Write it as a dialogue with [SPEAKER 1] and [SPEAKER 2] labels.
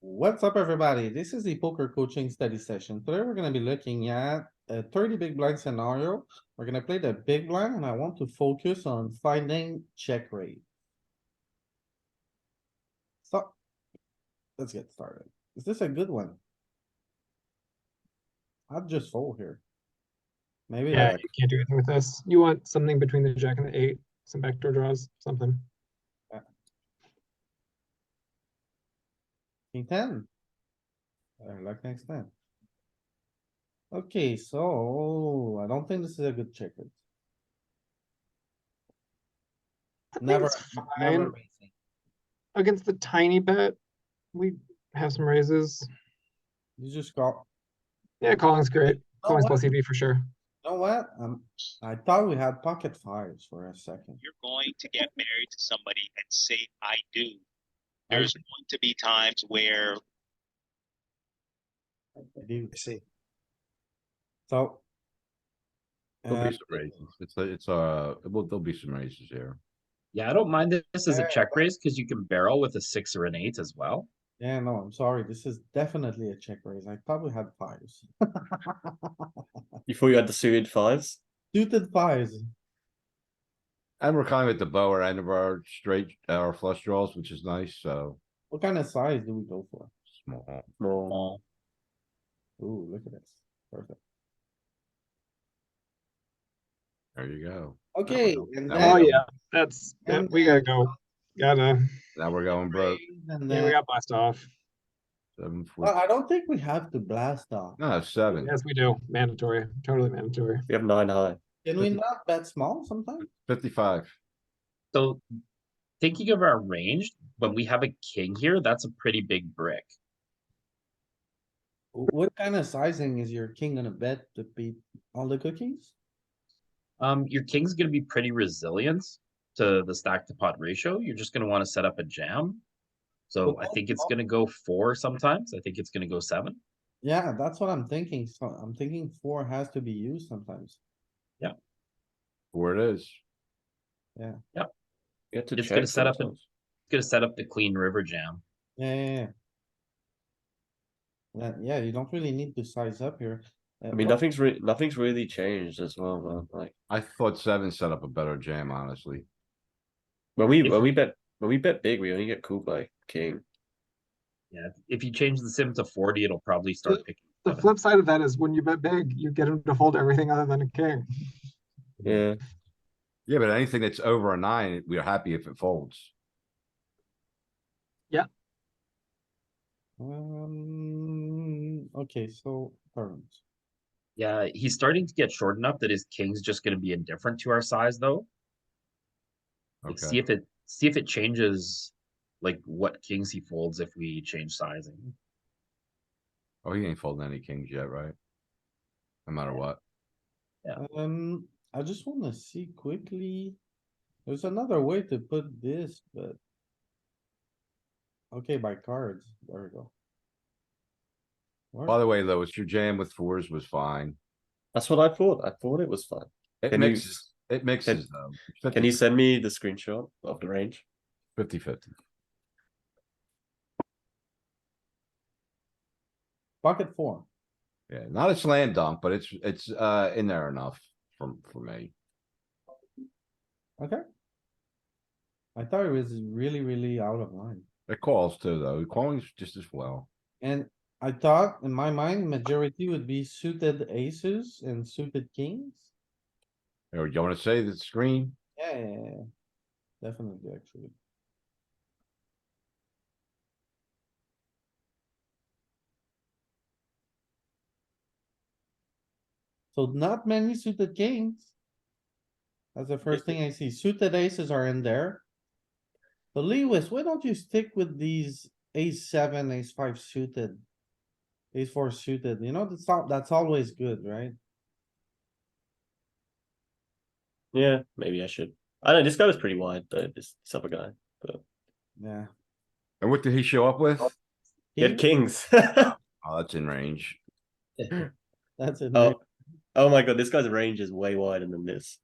[SPEAKER 1] What's up, everybody? This is the poker coaching study session. Today, we're gonna be looking at a thirty big blind scenario. We're gonna play the big blind and I want to focus on finding check rate. So, let's get started. Is this a good one? I'd just fold here. Maybe,
[SPEAKER 2] Yeah,
[SPEAKER 1] like-
[SPEAKER 2] you can't do anything with this. You want something between the jack and the eight, some backdoor draws, something.
[SPEAKER 1] King ten. I like next time. Okay, so I don't think this is a good check. raise.
[SPEAKER 2] I think
[SPEAKER 1] Never,
[SPEAKER 2] it's
[SPEAKER 1] never
[SPEAKER 2] fine.
[SPEAKER 1] raising.
[SPEAKER 2] Against the tiny bet, we have some raises.
[SPEAKER 1] You just call.
[SPEAKER 2] Yeah, calling's great.
[SPEAKER 1] Oh,
[SPEAKER 2] Calling's
[SPEAKER 1] what?
[SPEAKER 2] plus EV for sure.
[SPEAKER 1] You know what? Um, I thought we had pocket fives for a second.
[SPEAKER 3] you're going to get married to somebody and say, I do.
[SPEAKER 1] I
[SPEAKER 3] There's going to be times where
[SPEAKER 1] do.
[SPEAKER 4] I see.
[SPEAKER 1] So.
[SPEAKER 5] There'll
[SPEAKER 1] uh,
[SPEAKER 5] be some raises. It's, a- it's, uh, well, there'll be some raises here.
[SPEAKER 6] Yeah, I don't mind this- this as
[SPEAKER 1] Yeah,
[SPEAKER 6] a check raise because you can barrel with a six or an eight as well.
[SPEAKER 1] Yeah, no, I'm sorry. This is definitely a check raise. I thought we had fives.
[SPEAKER 7] You thought you had the suited fives?
[SPEAKER 1] Suited fives.
[SPEAKER 5] And we're kind of at the lower end of our straight, our flush draws, which is nice, so
[SPEAKER 1] What kind of size do we go for?
[SPEAKER 5] small.
[SPEAKER 7] Small.
[SPEAKER 1] Ooh, look at this. Perfect.
[SPEAKER 5] There you go.
[SPEAKER 1] Okay.
[SPEAKER 5] help.
[SPEAKER 1] and
[SPEAKER 5] That
[SPEAKER 1] then-
[SPEAKER 2] Oh,
[SPEAKER 5] would
[SPEAKER 2] yeah, that's, that-
[SPEAKER 1] And
[SPEAKER 2] we gotta go. Gotta,
[SPEAKER 5] Now we're going broke.
[SPEAKER 1] And
[SPEAKER 2] yeah, we
[SPEAKER 1] then,
[SPEAKER 2] got blast off.
[SPEAKER 5] Seven,
[SPEAKER 6] Uh,
[SPEAKER 1] well,
[SPEAKER 5] four,
[SPEAKER 1] I don't think we have to blast off.
[SPEAKER 5] no, seven.
[SPEAKER 2] Yes, we do. Mandatory, totally mandatory.
[SPEAKER 7] We have nine high.
[SPEAKER 1] Can we not bet small sometimes?
[SPEAKER 5] Fifty-five.
[SPEAKER 6] So thinking of our range, when we have a king here, that's a pretty big brick.
[SPEAKER 1] Wh- What kind of sizing is your king gonna bet to beat all the cookies?
[SPEAKER 6] Um, your king's gonna be pretty resilient to the stack to pot ratio. You're just gonna want to set up a jam. So I
[SPEAKER 1] Well,
[SPEAKER 6] think it's
[SPEAKER 1] well-
[SPEAKER 6] gonna go four sometimes. I think it's gonna go seven.
[SPEAKER 1] Yeah, that's what I'm thinking. So I'm thinking four has to be used sometimes.
[SPEAKER 5] Four it is.
[SPEAKER 7] You had to
[SPEAKER 6] It's gonna
[SPEAKER 7] check
[SPEAKER 6] set up a-
[SPEAKER 7] sometimes.
[SPEAKER 6] It's gonna set up the clean river jam.
[SPEAKER 1] Yeah, yeah, yeah. Yeah, yeah, you don't really need to size up here. Uh,
[SPEAKER 7] I mean,
[SPEAKER 1] but-
[SPEAKER 7] nothing's re- nothing's really changed as well, man. Like
[SPEAKER 5] I thought seven set up a better jam, honestly.
[SPEAKER 7] when we
[SPEAKER 6] If-
[SPEAKER 7] when we bet when we bet big, we only get called by king.
[SPEAKER 6] Yeah, if you change the sim to forty, it'll probably start picking.
[SPEAKER 2] The
[SPEAKER 6] seven.
[SPEAKER 2] flip side of that is when you bet big, you get him to fold everything other than a king.
[SPEAKER 7] Yeah,
[SPEAKER 5] Yeah, but anything that's over a nine, we're happy if it folds.
[SPEAKER 1] Um, okay, so turns.
[SPEAKER 6] Yeah, he's starting to get short enough that his king's just gonna be indifferent to our size though. Like, see
[SPEAKER 5] Okay,
[SPEAKER 6] if it, see if it changes, like what kings he folds if we change sizing.
[SPEAKER 5] oh, he ain't folding any kings yet, right? No matter what.
[SPEAKER 1] Um, I just wanna see quickly. There's another way to put this, but. Okay, by cards, there we go. Where-
[SPEAKER 5] By the way, Louis, your jam with fours was fine.
[SPEAKER 7] that's what I thought. I thought it was fine.
[SPEAKER 5] It
[SPEAKER 7] Can you-
[SPEAKER 5] mixes, it mixes though.
[SPEAKER 7] Can you send me the screenshot of the range?
[SPEAKER 5] Fifty fifty.
[SPEAKER 1] Pocket four,
[SPEAKER 5] Yeah, not a slam dunk, but it's, it's, uh, in there enough for, for me.
[SPEAKER 1] okay? I thought it was really, really out of line.
[SPEAKER 5] It calls too, though. Calling's just as well.
[SPEAKER 1] And I thought in my mind, majority would be suited aces and suited kings.
[SPEAKER 5] Or you wanna say the screen?
[SPEAKER 1] Yeah, yeah, yeah. Definitely, actually. So not many suited kings. That's the first thing I see. Suited aces are in there. But Lewis, why don't you stick with these ace seven, ace five suited? Ace four suited, you know, that's al- that's always good, right?
[SPEAKER 7] Yeah, maybe I should. I don't know this guy was pretty wide though. This, this other guy,
[SPEAKER 1] Yeah.
[SPEAKER 5] And what did he show up
[SPEAKER 7] Oh.
[SPEAKER 5] with?
[SPEAKER 7] he had kings.
[SPEAKER 5] Oh, that's in range.
[SPEAKER 1] That's it.
[SPEAKER 7] oh, oh my god, this guy's range is way wider than this.